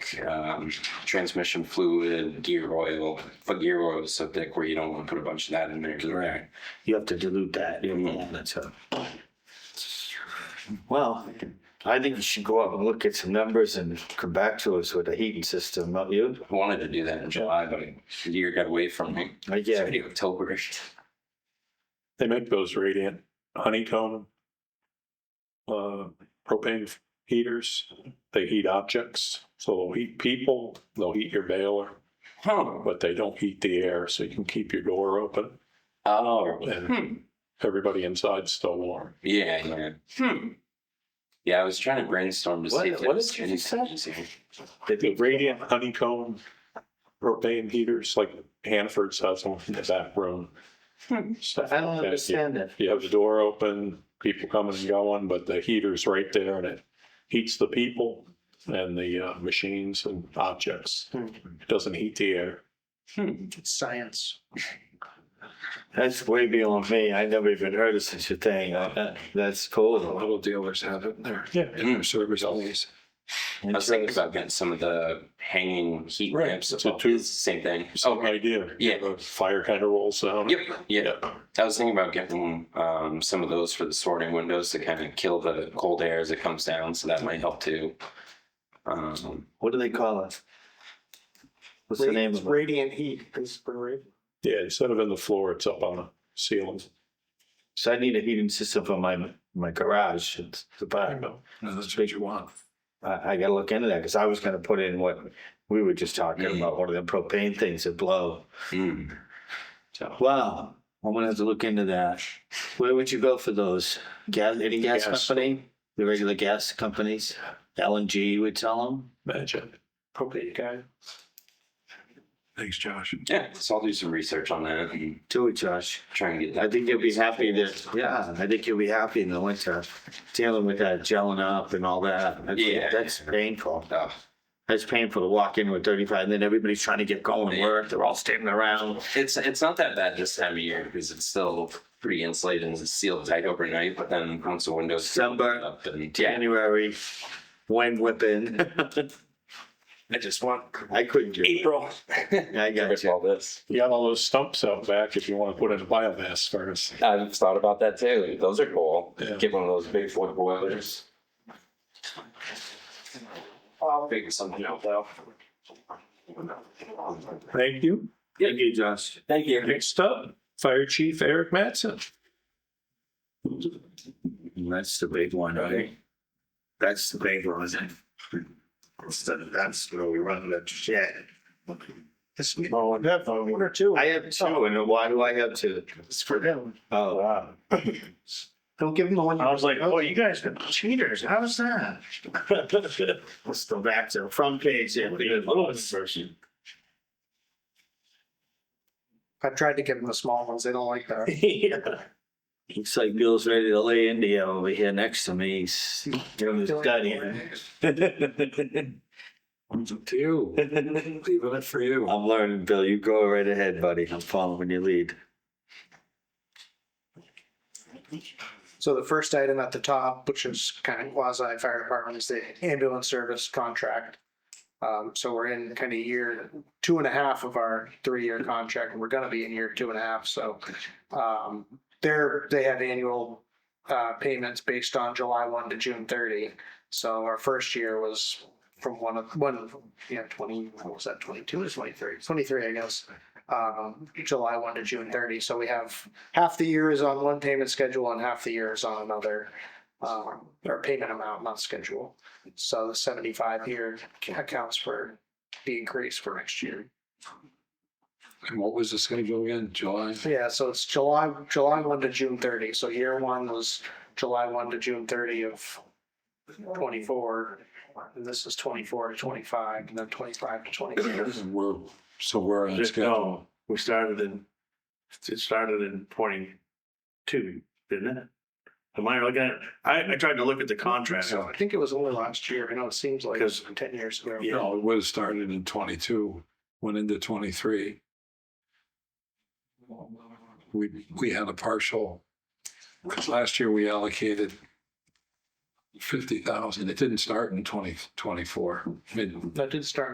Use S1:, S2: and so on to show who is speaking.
S1: um, transmission fluid, gear oil, but gear oil is so thick where you don't want to put a bunch of that in there. 'cause
S2: Right. You have to dilute that. You know, that's a. Well, I think you should go out and look at some numbers and come back to us with a heating system, not you?
S1: I wanted to do that in July, but the year got away from me.
S2: I
S1: It's
S2: get it.
S1: already October.
S3: They make those radiant honeycomb uh, propane heaters. They heat objects. So they'll heat people, they'll heat your baler,
S1: Huh.
S3: but they don't heat the air. So you can keep your door open
S1: Oh,
S3: and everybody inside's still warm.
S1: yeah, yeah. Hmm. Yeah, I was trying to brainstorm to
S2: What-
S1: see if
S2: what
S1: there was
S2: did you
S1: any
S2: just say?
S1: contingency.
S3: The radiant honeycomb propane heaters, like Hanford's has one in the back room. Stuff
S2: I don't
S3: like that.
S2: understand that.
S3: You have the door open, people coming and going, but the heater's right there and it heats the people and the uh, machines and objects. It doesn't heat the air.
S4: Science.
S2: That's way beyond me. I never even heard of such a thing. Uh, That's cool.
S4: Little dealers have it in their,
S3: Yeah.
S4: in their service always.
S1: I was thinking about getting some of the hanging heat
S3: Right,
S1: ramps.
S3: it's a
S1: above.
S3: tube.
S1: It's the same thing.
S3: Same
S1: Oh,
S3: idea.
S1: Yeah.
S3: The Fire kind of rolls down.
S1: yep, yeah.
S3: Yeah.
S1: I was thinking about getting um, some of those for the sorting windows to kind of kill the cold air as it comes down, so that might help too. Um,
S2: What do they call it? What's the name
S4: It's
S2: of it?
S4: Radiant heat, because for radiant.
S3: Yeah, instead of in the floor, it's up on a ceiling.
S2: So I need a heating system for my, my garage. It's the
S3: I
S2: back.
S3: know.
S4: No, that's what you want.
S2: I, I gotta look into that because I was gonna put in what we were just talking
S1: Mhm.
S2: about, one of them propane things that blow. Hmm.
S1: mm. So
S2: Wow, I'm gonna have to look into that. Where would you go for those? Gas, any gas
S3: Gas.
S2: company? The regular gas companies? LNG, you would tell them?
S3: Imagine.
S4: Propane guy. Thanks, Josh.
S1: yeah, so I'll do some research on that and
S2: Do it, Josh.
S1: try and get that.
S2: I think you'll be happy that, yeah, I think you'll be happy in the winter dealing with that gelling up and all that. That's-
S1: Yeah.
S2: That's painful.
S1: Uh,
S2: That's painful to walk in with thirty-five and then everybody's trying to get going to work. They're all standing around.
S1: it's it's not that bad this time of year because it's still pretty insulated and it's sealed tight overnight. But then once the windows
S2: Sunburn.
S1: up and yeah,
S2: January, wind whipping.
S1: I just want
S2: I couldn't do it.
S1: April.
S2: I got you.
S1: all this.
S3: You got all those stumps out back if you want to put in a biomass furnace.
S1: I've thought about that too. Those are cool.
S3: Yeah.
S1: Get one of those big foot boilers. I'll figure something out though.
S3: Thank you.
S2: Thank you, Josh.
S1: Thank you.
S3: Next up, Fire Chief Eric Matson.
S2: That's the big one, right? That's the big one. So That's where we run the shit.
S4: This, oh, I have one or two.
S2: I have two, and why do I have two?
S4: It's for them.
S2: Oh, wow.
S4: Don't give them the one.
S5: I was like, oh, you guys are cheaters. How's that?
S2: Let's go back to the front page. here.
S4: I've tried to give them the small ones. They don't like that.
S2: Looks like Bill's ready to lay India over here next to me. He's doing his study.
S4: One's up to you. Leaving it for you.
S2: I'm learning, Bill. You go right ahead, buddy. I'm following your lead.
S4: So the first item at the top, which is kind of quasi fire department, is the ambulance service contract. Um, so we're in kind of year two and a half of our three-year contract, and we're gonna be in year two and a half, so. Um, they're, they have annual, uh, payments based on July one to June thirty. So our first year was from one of, one, yeah, twenty, what was that, twenty-two or twenty-three? Twenty-three, I guess. Um, July one to June thirty, so we have half the year is on one payment schedule and half the year is on another, um, or payment amount, not schedule. So the seventy-five here accounts for the increase for next year.
S5: And what was the schedule again? July?
S4: Yeah, so it's July, July one to June thirty, so year one was July one to June thirty of twenty-four. And this is twenty-four to twenty-five, and then twenty-five to twenty-six.
S5: We're, so we're on schedule.
S6: No, we started in, it started in twenty-two, didn't it? Am I looking at, I, I tried to look at the contract.
S4: So I think it was only last year, I know it seems like
S6: Because-
S4: ten years ago.
S5: No, it would have started in twenty-two, went into twenty-three. We, we had a partial, because last year we allocated fifty thousand. It didn't start in twenty twenty-four, mid,
S4: That did start